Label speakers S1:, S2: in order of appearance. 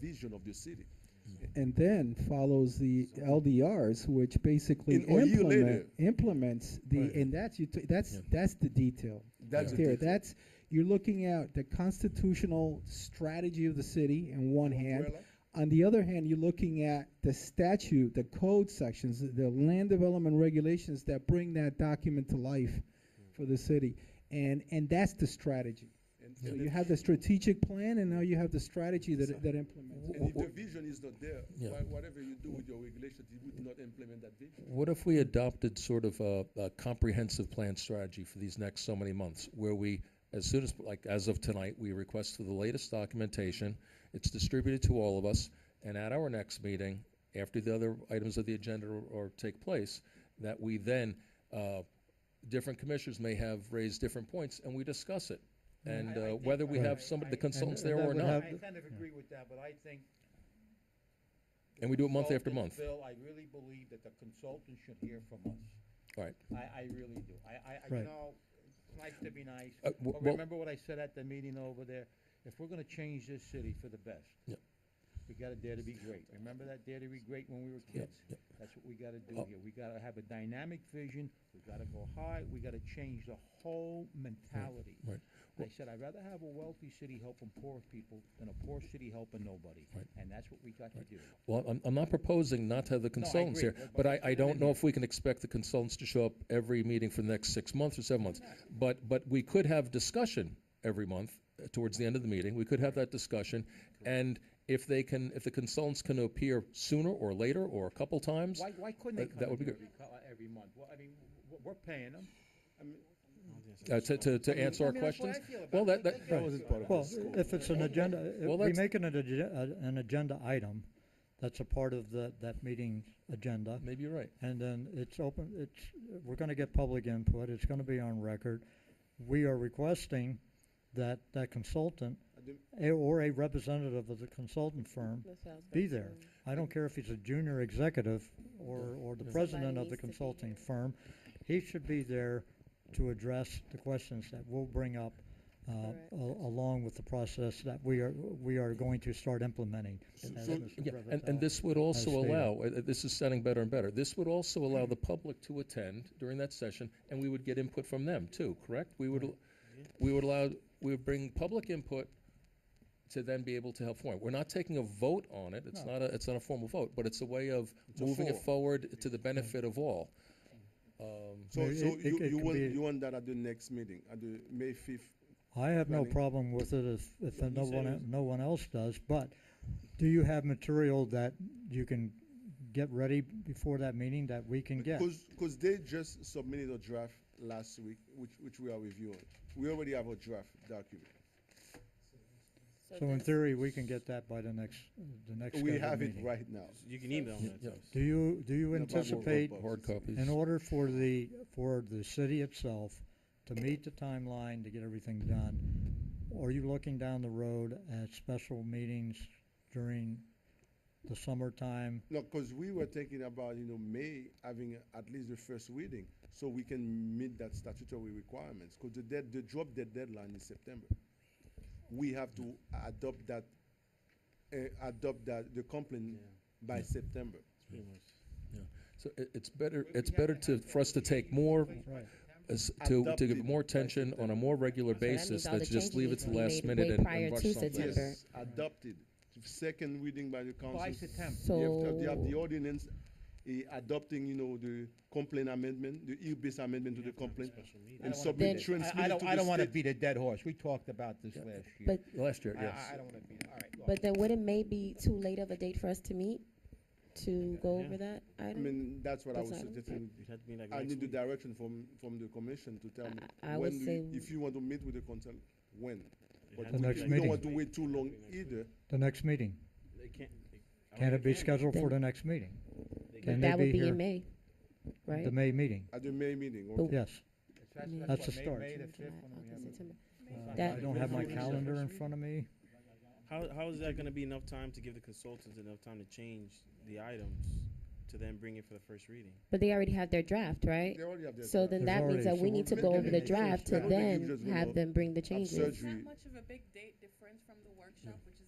S1: vision of the city.
S2: and then follows the LDRs, which basically
S1: In- or a year
S2: implement,
S1: later.
S2: implements the,
S3: Right.
S2: and that's you. that's
S3: Yeah.
S2: that's the detail.
S1: That's
S2: right
S1: the
S2: there.
S1: detail.
S2: That's you're looking at the constitutional strategy of the city in one hand.
S1: Umbrella.
S2: On the other hand, you're looking at the statute, the code sections, the land development regulations that bring that document to life for the city, and and that's the strategy.
S1: And-
S2: So
S1: and
S2: you
S1: if-
S2: have the strategic plan, and now you have the strategy that that implements. it.
S1: And if the vision is not there,
S3: Yeah.
S1: wha- whatever you do with your regulations, you would not implement that vision.
S3: What if we adopted sort of a, a comprehensive plan strategy for these next so many months, where we, as soon as, like, as of tonight, we request for the latest documentation, it's distributed to all of us, and at our next meeting, after the other items of the agenda or, or take place, that we then, uh, different commissioners may have raised different points, and we discuss it. And,
S4: I- I
S3: uh,
S4: think
S3: whether we
S4: I-
S3: have
S4: I-
S3: some of
S4: I-
S3: the consultants
S2: and
S3: there
S2: that
S3: or
S2: would
S3: not,
S2: have-
S4: I kind of agree with that, but I think.
S3: and we do it month after
S4: consultants,
S3: month.
S4: Bill, I really believe that the consultants should hear from us.
S3: All right.
S4: I, I really do. I, I- I,
S2: Right.
S4: you know, it's nice to be nice,
S3: Uh,
S4: but
S3: wh- well-
S4: remember what I said at the meeting over there? If we're gonna change this city for the best.
S3: Yep.
S4: We gotta dare to be great. Remember that dare to be great when we were kids? That's what we gotta do
S3: Oh.
S4: here. We gotta have a dynamic vision. We gotta go high. We gotta change the whole mentality.
S3: right.
S4: I said, I'd rather have a wealthy city helping poor people than a poor city helping nobody.
S3: Right.
S4: And that's what we got to do.
S3: Well, I'm, I'm not proposing not to have the consultants
S4: agree.
S3: here,
S4: That-
S3: but I,
S4: but
S3: I
S4: it's
S3: don't
S4: in
S3: know
S4: here.
S3: if we can expect the consultants to show up every meeting for the next six months or seven months. But, but we could have discussion every month uh, towards the end of the meeting. We could have that discussion. And if they can, if the consultants can appear sooner or later or a couple times,
S4: Why, why couldn't they
S3: Uh, that
S4: come in
S3: would be
S4: here
S3: good.
S4: every, co- uh, every month? Well, I mean, w- we're paying them.
S3: uh, to, to, to answer
S4: I
S3: our
S4: mean, that's what I
S3: questions.
S4: feel about
S3: Well, that,
S4: it. They-
S3: that,
S4: they get all this part of
S5: Well,
S4: it.
S2: uh,
S5: if it's an agenda, if
S3: Well,
S5: we
S3: that's-
S5: make an, ag- uh, an agenda item, that's a part of the, that meeting's agenda.
S3: maybe you're right.
S5: And then it's open, it's, we're gonna get public input, it's gonna be on record. We are requesting that, that consultant, a- or a representative of the consultant firm, be there. I don't care if he's a junior executive or, or the president of
S6: Somebody
S5: the
S6: needs to be
S5: consulting
S6: there.
S5: firm. He should be there to address the questions that we'll bring up, uh,
S6: Correct.
S5: a- along with the process that we are, we are going to start implementing. as
S3: So-
S5: Mr.
S3: yeah, And, and
S5: Brevettel
S3: this would also
S5: stated.
S3: allow, uh, uh, this is sounding better and better, this would also allow the
S1: Mm-hmm.
S3: public to attend during that session, and we would get input from them too, correct? We would, al- we would allow, we would bring public input to then be able to help form. We're not taking a vote on it, it's not a, it's not a formal vote, but it's a way of
S1: It's a
S3: moving it
S1: forum.
S3: forward to the benefit of all. Um,
S1: So,
S5: Maybe
S1: so
S5: it- it-
S1: you,
S5: it
S1: you
S5: could
S1: want,
S5: be-
S1: you want that at the next meeting, at the May fifth?
S5: I have no
S1: Running.
S5: problem with it if, if
S1: Like you
S5: no
S1: said,
S5: one,
S1: it was-
S5: no one else does, but do you have material that you can get ready before that meeting that we can get?
S1: Because, because they just submitted a draft last week, which, which we are reviewing. We already have a draft document.
S5: So in theory, we can get that by the next, the next
S1: We
S5: scheduled
S1: have it
S5: meeting.
S1: right now.
S7: You can email
S3: yeah,
S7: that to
S3: yeah.
S7: us.
S5: Do you, do you
S1: Yeah, but we'll
S5: anticipate,
S1: vote.
S3: Hard copies.
S5: in order for the, for the city itself to meet the timeline to get everything done, are you looking down the road at special meetings during the summertime?
S1: No, because we were thinking about, you know, May having at least the first reading, so we can meet that statutory requirements, because the dead, the drop dead deadline is September. We have to adopt that, uh, adopt that, the complaint by September.
S3: So it, it's better,
S4: We- we
S3: it's
S4: have to
S3: better to,
S4: have
S3: for us to
S4: something in
S3: take more,
S4: place by
S5: Right.
S4: September.
S3: as- to, to
S1: Adopted
S3: give more
S1: by
S3: attention on
S1: September.
S3: a more regular
S6: that means
S3: basis,
S6: all
S3: than
S6: the
S3: to just
S6: changes
S3: leave
S6: need
S3: it
S6: to
S3: to
S6: be
S3: last
S6: made
S3: minute
S6: way
S3: and
S6: prior
S3: and rush
S6: to
S3: something.
S6: September.
S1: Yes, adopted, second reading by the council.
S4: By September.
S1: You have to- you have the
S6: So-
S1: ordinance, eh, adopting, you know, the complaint amendment, the ill-based amendment to the complaint,
S4: I
S1: and
S4: don't wanna
S6: Then-
S1: submit,
S4: beat it. I-
S1: transmit
S4: I
S1: it
S4: don't,
S1: to
S4: I
S1: the
S4: don't wanna
S1: state.
S4: beat a dead horse. We talked about this last year.
S6: But-
S3: Last year,
S4: I,
S3: yes.
S4: I- I don't wanna beat it. All right. look.
S6: But then would it may be too late of a date for us to meet to go over that
S1: I
S6: item?
S1: mean, that's what I
S6: That's
S1: was
S6: not-
S1: suggesting,
S7: It had to be like
S1: I
S7: next
S1: need the
S7: week.
S1: direction from, from the commission to tell me.
S6: I- I
S1: when
S6: would
S1: do you-
S6: say-
S1: If you want to meet with the council, when?
S7: It
S1: But we
S7: had to
S5: The
S7: be
S5: next
S1: we don't
S7: like
S5: meeting.
S1: want to wait too long
S7: Maybe next week.
S1: either.
S5: The next meeting?
S7: They can't. they- I
S5: Can
S7: mean,
S5: it be
S7: they
S5: scheduled for
S6: Then-
S5: the next meeting?
S7: They
S5: Can they
S6: That would be
S5: here?
S6: in May, right?
S5: The May meeting,
S1: At the May meeting,
S6: But-
S1: okay.
S5: yes.
S4: That's-
S6: Yeah.
S5: That's
S4: what,
S5: the
S4: May-
S5: start.
S4: May the
S6: June,
S4: fifth
S6: July,
S4: when we have
S6: August,
S4: it.
S6: September.
S5: Uh, I
S6: That-
S5: don't have my calendar in front of me.
S7: How, how is that gonna be enough time to give the consultants enough time to change the items to then bring it for the first reading?
S6: But they already have their draft, right?
S1: They already have their.
S6: So
S1: draft.
S6: then
S5: There's
S6: that means
S5: already-
S6: that
S5: so
S6: we
S5: we'll
S6: need to
S1: make
S6: go
S1: them
S6: over the
S1: make sure.
S6: draft
S1: I
S6: to
S1: don't think you
S6: then
S1: just will
S6: have them bring the
S1: have
S6: changes.
S1: surgery.
S8: It's not much of a big date difference from the workshop, which is